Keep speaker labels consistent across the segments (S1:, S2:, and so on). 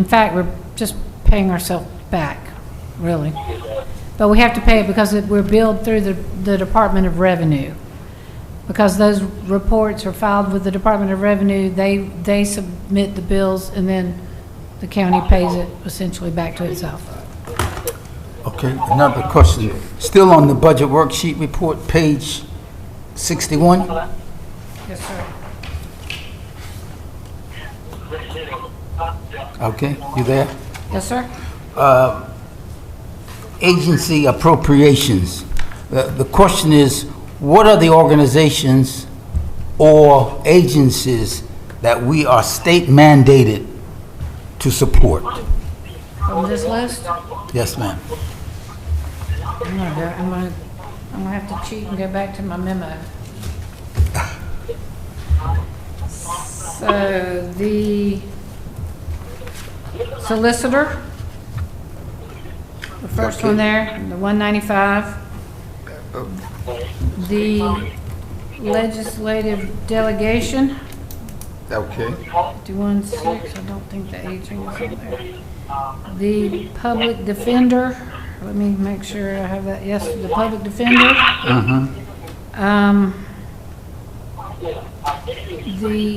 S1: In fact, we're just paying ourselves back, really. But we have to pay it because it- we're billed through the, the Department of Revenue. Because those reports are filed with the Department of Revenue, they, they submit the bills, and then the county pays it essentially back to itself.
S2: Okay, another question. Still on the budget worksheet report, page 61?
S1: Yes, sir.
S2: Okay, you there?
S1: Yes, sir?
S2: Agency appropriations. The the question is, what are the organizations or agencies that we are state mandated to support?
S1: From this list?
S2: Yes, ma'am.
S1: I'm gonna, go- I'm gonna, I'm gonna have to cheat and go back to my memo. So the solicitor, the first one there, the one ninety-five. The legislative delegation,
S2: Okay.
S1: fifty-one six, I don't think the aging is in there. The public defender, let me make sure I have that, yes, the public defender.
S2: Mm-hmm.
S1: Um, the,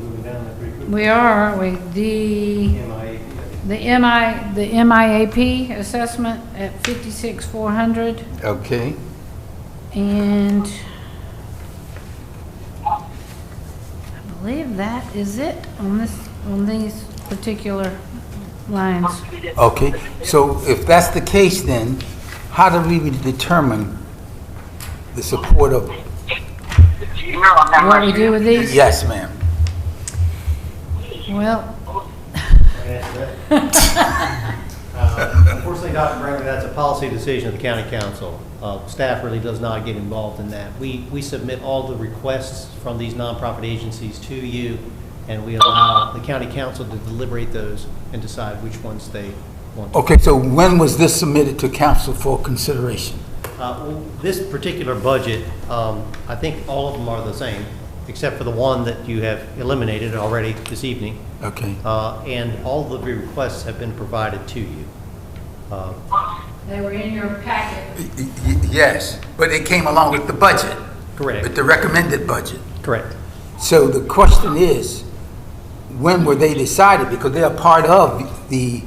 S3: Moving down that pretty quick.
S1: we are, we, the,
S3: MIA,
S1: the MI, the MIAP assessment at fifty-six, four hundred,
S2: Okay.
S1: and I believe that is it on this, on these particular lines.
S2: Okay, so if that's the case, then how do we determine the support of,
S1: What we do with these?
S2: yes, ma'am?
S1: Well,
S3: that's that. Uh, Unfortunately, Dr. Brinkley, that's a policy decision of the county council. Uh, Staff really does not get involved in that. We, we submit all the requests from these nonprofit agencies to you, and we allow the county council to deliberate those and decide which ones they want. to-
S2: Okay, so when was this submitted to council for consideration?
S3: Uh, well, This particular budget, um, I think all of them are the same, except for the one that you have eliminated already this evening.
S2: Okay,
S3: Uh, and all of the requests have been provided to you. Uh,
S1: they were in your packet.
S2: Y- y- yes, but it came along with the budget, with
S3: Correct,
S2: the recommended budget.
S3: correct.
S2: So the question is, when were they decided? Because they are part of the,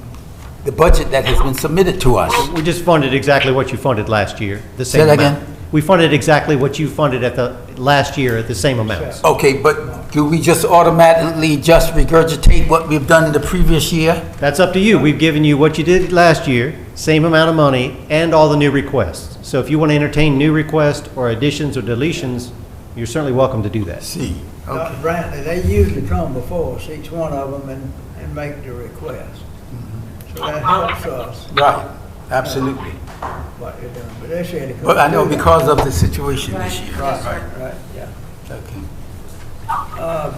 S2: the budget that has been submitted to us.
S3: We just funded exactly what you funded last year, the
S2: Say
S3: same
S2: that
S3: amount.
S2: again?
S3: We funded exactly what you funded at the, last year at the same amounts.
S2: Okay, but do we just automatically just regurgitate what we've done in the previous year?
S3: That's up to you. We've given you what you did last year, same amount of money, and all the new requests. So if you want to entertain new requests or additions or deletions, you're certainly welcome to do that.
S2: See, okay.
S4: Dr. Brantley, they usually come before us, each one of them, and, and make the request. So that helps us,
S2: Right, absolutely.
S4: what they're doing, but they said it couldn't
S2: But I know
S4: do that.
S2: because of the situation this
S1: Right.
S2: year.
S4: Right, right, yeah.
S2: Okay,
S4: Uh,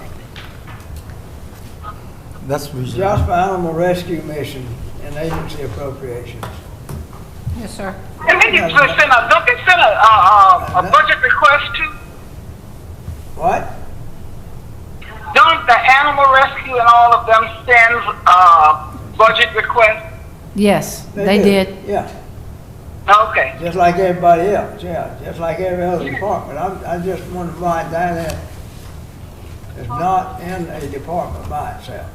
S2: that's reasonable.
S4: Jasper Animal Rescue Mission and agency appropriations.
S1: Yes, sir.
S5: And they can just send a, don't they send a, a, a budget request to,
S4: What?
S5: don't the animal rescue and all of them send, uh, budget requests?
S1: Yes, they did.
S4: Yeah,
S5: Okay.
S4: just like everybody else, yeah, just like every other department. I, I just want to find out that it's not in a department by itself.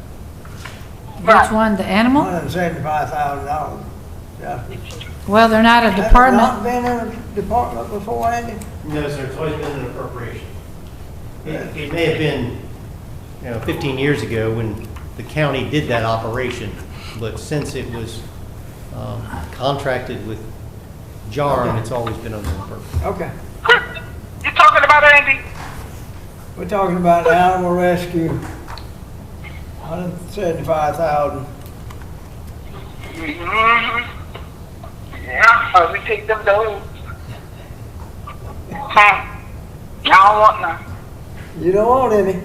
S1: Which one, the animal?
S4: $175,000, Jasper.
S1: Well, they're not a
S4: Not
S1: department.
S4: been in a department before, Andy?
S3: No, sir, it's always been an appropriation. It it may have been, you know, 15 years ago when the county did that operation, but since it was um, contracted with JARM, it's always been under appropriation.
S4: Okay,
S5: You talking about Andy?
S4: we're talking about animal rescue, hundred seventy-five thousand.
S5: Mm-hmm. Yeah, uh, we take them those. Huh. Y'all want none.
S4: You don't want any.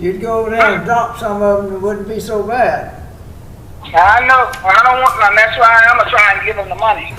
S4: You'd go over there and adopt some of them, it wouldn't be so bad.
S5: I know, I don't want none, that's why I'm gonna try and give them the money.